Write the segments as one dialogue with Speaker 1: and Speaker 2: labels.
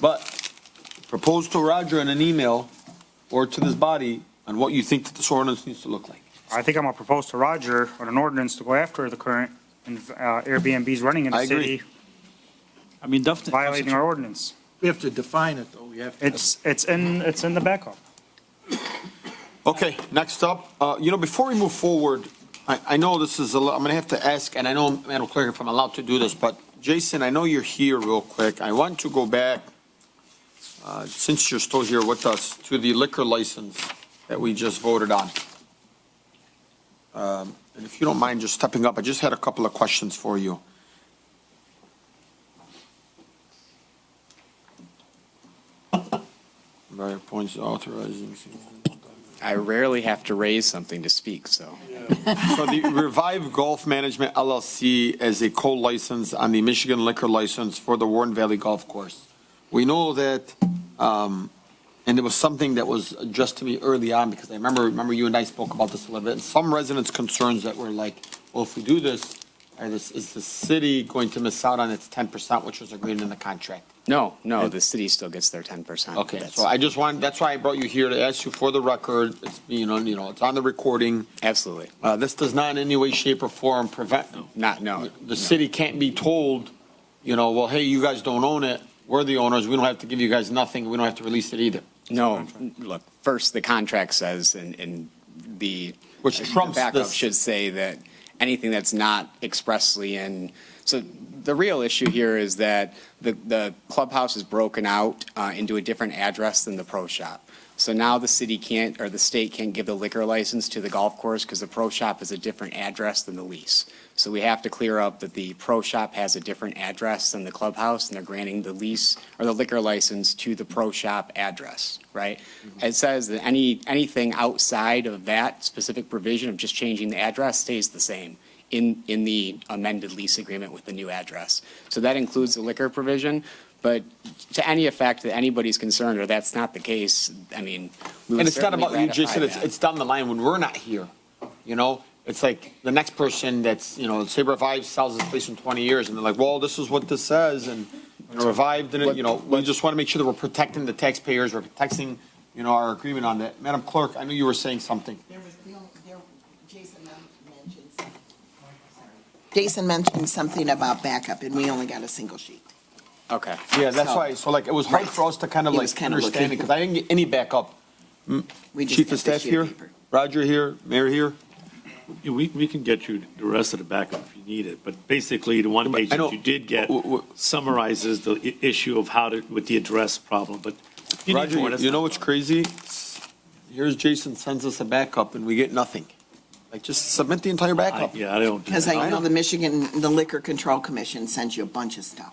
Speaker 1: But propose to Roger in an email or to this body on what you think that this ordinance needs to look like.
Speaker 2: I think I'm gonna propose to Roger on an ordinance to go after the current uh, Airbnbs running in
Speaker 1: I
Speaker 2: the
Speaker 1: agree.
Speaker 2: city,
Speaker 3: I mean, definitely.
Speaker 2: violating our ordinance.
Speaker 4: We have to define it, though. We have to.
Speaker 2: It's, it's in, it's in the backup.
Speaker 1: Okay, next up, uh, you know, before we move forward, I, I know this is, a lo- I'm gonna have to ask, and I know, Madam Clerk, if I'm allowed to do this, but Jason, I know you're here real quick. I want to go back, uh, since you're still here with us, to the liquor license that we just voted on. Um, And if you don't mind just stepping up, I just had a couple of questions for you. Various points authorizing.
Speaker 5: I rarely have to raise something to speak, so.
Speaker 1: So the Revive Golf Management LLC as a co-license on the Michigan liquor license for the Warren Valley Golf Course. We know that, um, and it was something that was addressed to me early on, because I remember, remember you and I spoke about this a little bit, and some residents' concerns that were like, well, if we do this, are this, is the city going to miss out on its ten percent, which was agreed in the contract?
Speaker 5: No, no, the city still gets their ten percent.
Speaker 1: Okay, so I just wanted, that's why I brought you here, to ask you for the record, it's, you know, you know, it's on the recording.
Speaker 5: Absolutely.
Speaker 1: Uh, this does not in any way, shape, or form prevent
Speaker 5: Not, no. no.
Speaker 1: the city can't be told, you know, well, hey, you guys don't own it, we're the owners, we don't have to give you guys nothing, we don't have to release it either,
Speaker 5: No, look, first, the contract says, and, and the.
Speaker 1: which
Speaker 5: the
Speaker 1: trumps
Speaker 5: Backup
Speaker 1: this.
Speaker 5: should say that anything that's not expressly in, so the real issue here is that the, the clubhouse is broken out uh, into a different address than the pro shop. So now the city can't, or the state can't give the liquor license to the golf course because the pro shop is a different address than the lease. So we have to clear up that the pro shop has a different address than the clubhouse, and they're granting the lease or the liquor license to the pro shop address, right? It says that any, anything outside of that specific provision of just changing the address stays the same in, in the amended lease agreement with the new address. So that includes the liquor provision, but to any effect that anybody's concerned, or that's not the case, I mean,
Speaker 1: And
Speaker 5: we would
Speaker 1: it's not
Speaker 5: certainly
Speaker 1: about you,
Speaker 5: ratify
Speaker 1: Jason, it's,
Speaker 5: that.
Speaker 1: it's down the line when we're not here, you know? It's like the next person that's, you know, say Revive sells this place in twenty years, and they're like, well, this is what this says, and you know, Revive didn't, you know, we just wanna make sure that we're protecting the taxpayers, we're protecting, you know, our agreement on that. Madam Clerk, I knew you were saying something.
Speaker 6: There was, the only- there, Jason mentioned something. Jason mentioned something about backup, and we only got a single sheet.
Speaker 5: Okay.
Speaker 1: Yeah, that's
Speaker 6: So-
Speaker 1: why, so like, it was hard for us to kind of
Speaker 6: He
Speaker 1: like
Speaker 6: was kinda looking.
Speaker 1: understand it, because I didn't get any backup.
Speaker 6: We
Speaker 1: Chief
Speaker 6: just got
Speaker 1: of
Speaker 6: the
Speaker 1: Staff
Speaker 6: sheet
Speaker 1: here,
Speaker 6: of paper.
Speaker 1: Roger here, Mayor here.
Speaker 3: Yeah, We, we can get you the rest of the backup if you need it, but basically, the one
Speaker 1: But I
Speaker 3: page that
Speaker 1: don't-
Speaker 3: you did get
Speaker 1: w- w-
Speaker 3: summarizes the i- issue of how to, with the address problem, but. if you need more,
Speaker 1: Roger,
Speaker 3: that's
Speaker 1: you know
Speaker 3: not-
Speaker 1: what's crazy? Here's Jason sends us a backup and we get nothing. Like, just submit the entire
Speaker 3: I-
Speaker 1: backup.
Speaker 3: Yeah, I don't. do
Speaker 6: Because
Speaker 3: that.
Speaker 1: I
Speaker 6: I know
Speaker 1: know.
Speaker 6: the Michigan, the Liquor Control Commission sends you a bunch of stuff.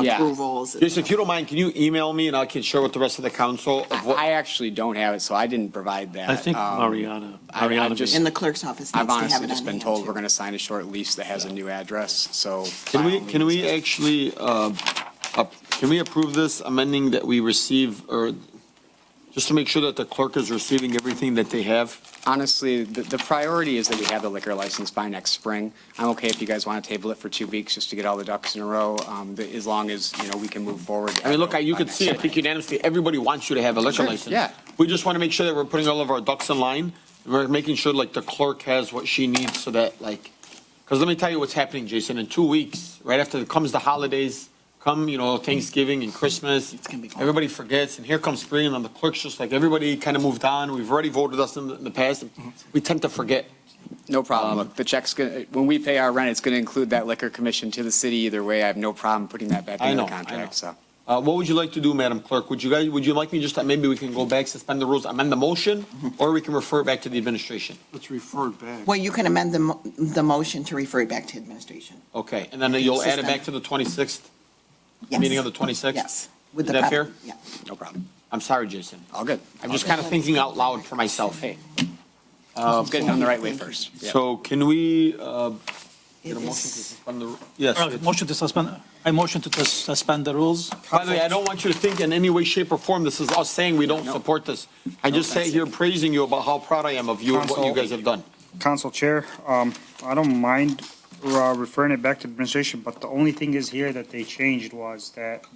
Speaker 5: Yeah.
Speaker 6: Approvals. and-
Speaker 1: Jason, if you don't mind, can you email me and I can share with the rest of the council of
Speaker 5: I I
Speaker 1: what?
Speaker 5: actually don't have it, so I didn't provide that.
Speaker 3: I think
Speaker 5: Um,
Speaker 3: Mariana,
Speaker 5: I- I
Speaker 3: Mariana.
Speaker 5: just-
Speaker 6: And the clerk's office needs
Speaker 5: I've
Speaker 6: to have
Speaker 5: honestly
Speaker 6: it
Speaker 5: just
Speaker 6: on
Speaker 5: been
Speaker 6: hand,
Speaker 5: told we're
Speaker 6: too.
Speaker 5: going to sign a short lease that has a new address, so.
Speaker 1: Can
Speaker 5: by
Speaker 1: we,
Speaker 5: all
Speaker 1: can we
Speaker 5: means-
Speaker 1: actually, uh, up- can we approve this amending that we receive or just to make sure that the clerk is receiving everything that they have?
Speaker 5: Honestly, the, the priority is that we have the liquor license by next spring. I'm okay if you guys want to table it for two weeks just to get all the ducks in a row, um, the- as long as, you know, we can move forward.
Speaker 1: I mean, look, I- you
Speaker 5: by
Speaker 1: can
Speaker 5: next
Speaker 1: see, I
Speaker 5: spring.
Speaker 1: think unanimously, everybody wants you to have a liquor
Speaker 5: Sure,
Speaker 1: license.
Speaker 5: yeah.
Speaker 1: We just want to make sure that we're putting all of our ducks in line. and We're making sure like the clerk has what she needs so that like, because let me tell you what's happening, Jason, in two weeks, right after comes the holidays, come, you know, Thanksgiving and Christmas.
Speaker 6: It's gonna be cold.
Speaker 1: Everybody forgets and here comes spring and the clerk's just like, everybody kind of moved on. We've already voted us in the, in the past. We tend to forget.
Speaker 5: No
Speaker 1: Um,
Speaker 5: problem. Look, the check's going, when we pay our rent, it's going to include that liquor commission to the city either way. I have no problem putting that back
Speaker 1: I
Speaker 5: into
Speaker 1: know,
Speaker 5: the
Speaker 1: I know.
Speaker 5: contract, so.
Speaker 1: Uh, what would you like to do, Madam Clerk? Would you guys, would you like me just, to- maybe we can go back, suspend the rules, amend the motion,
Speaker 6: Mm-hmm.
Speaker 1: or we can refer it back to the administration?
Speaker 4: Let's refer it back.
Speaker 6: Well, you can amend the, mo- the motion to refer it back to administration.
Speaker 1: Okay, and then you'll add it back
Speaker 6: Suspend.
Speaker 1: to the 26th?
Speaker 6: Yes.
Speaker 1: Meeting of the 26th?
Speaker 6: Yes.
Speaker 1: Is
Speaker 6: With the
Speaker 1: that
Speaker 6: proper-
Speaker 1: fair?
Speaker 6: Yeah.
Speaker 5: No problem.
Speaker 1: I'm sorry, Jason.
Speaker 5: All good.
Speaker 1: I'm just kind of thinking out loud for myself.
Speaker 5: Hey. It's good done the right way first. Yeah.
Speaker 1: So can we, uh,
Speaker 6: It
Speaker 1: get a motion to
Speaker 6: is-
Speaker 1: suspend the, yes.
Speaker 3: All right, Motion to suspend, I motion to sus- suspend the rules.
Speaker 1: By the way, I don't want you to think in any way, shape, or form this is us saying we don't support this. I just sat here praising you about how proud I am of you and what you
Speaker 2: Counsel.
Speaker 1: guys have done.
Speaker 2: Council Chair, um, I don't mind uh, referring it back to administration, but the only thing is here that they changed was that